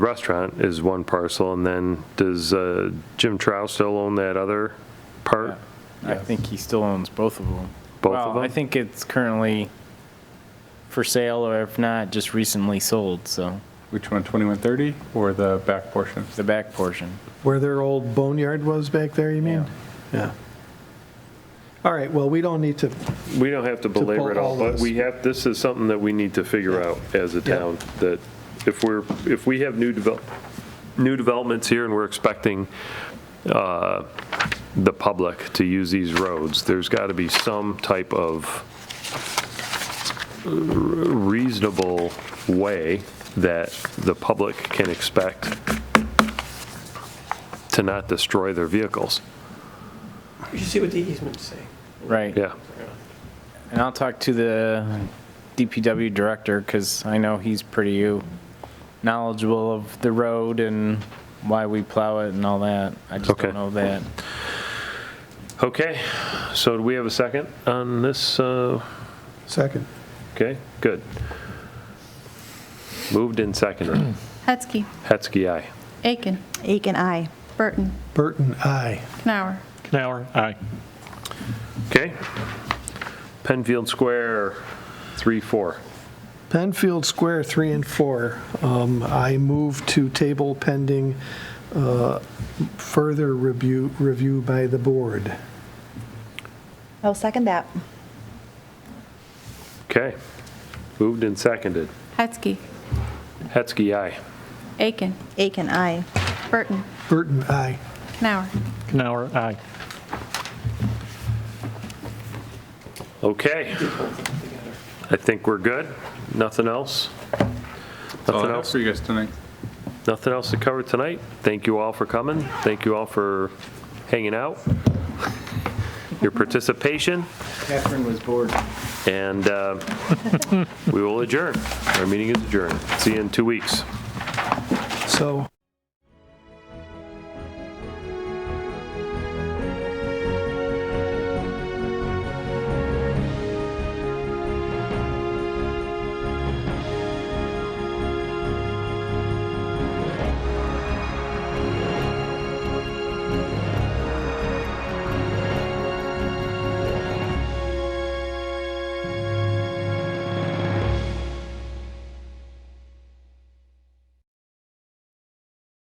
restaurant is one parcel, and then does uh, Jim Trow still own that other part? I think he still owns both of them. Both of Well, I them? think it's currently for sale, or if not, just recently sold, so, Which one, 2130 or the back portion? the back portion. Where their old boneyard was back there, you mean? Yeah. All right, well, we don't need to, We don't have to belabor it pull all, all but those. we have, this is something that we need to figure out as a Yeah. town, that if we're, if we have new develop, new developments here and we're expecting uh, the public to use these roads, there's got to be some type of reasonable way that the public can expect to not destroy their vehicles. You should see what the easements say. Right. Yeah. And I'll talk to the DPW director, because I know he's pretty knowledgeable of the road and why we plow it and all that. I just Okay. don't know that. Okay, so do we have a second on this? uh, second. Okay, good. Moved and seconded. Hetzke. Hetzke, aye. Aiken. Aiken, aye. Burton. Burton, aye. Knauer. Canower, aye. Okay. Penfield Square, 3-4. Penfield Square 3 and 4. Um, I move to table pending uh, further review, review by the board. I'll second that. Okay. Moved and seconded. Hetzke. Hetzke, aye. Aiken. Aiken, aye. Burton. Burton, aye. Knauer. Canower, aye. Okay. I think we're good. Nothing else? That's all Nothing I have else? for you guys tonight. Nothing else to cover tonight. Thank you all for coming. Thank you all for hanging out, your participation. Catherine was bored. And uh, we will adjourn. Our meeting is adjourned. See you in two weeks. So.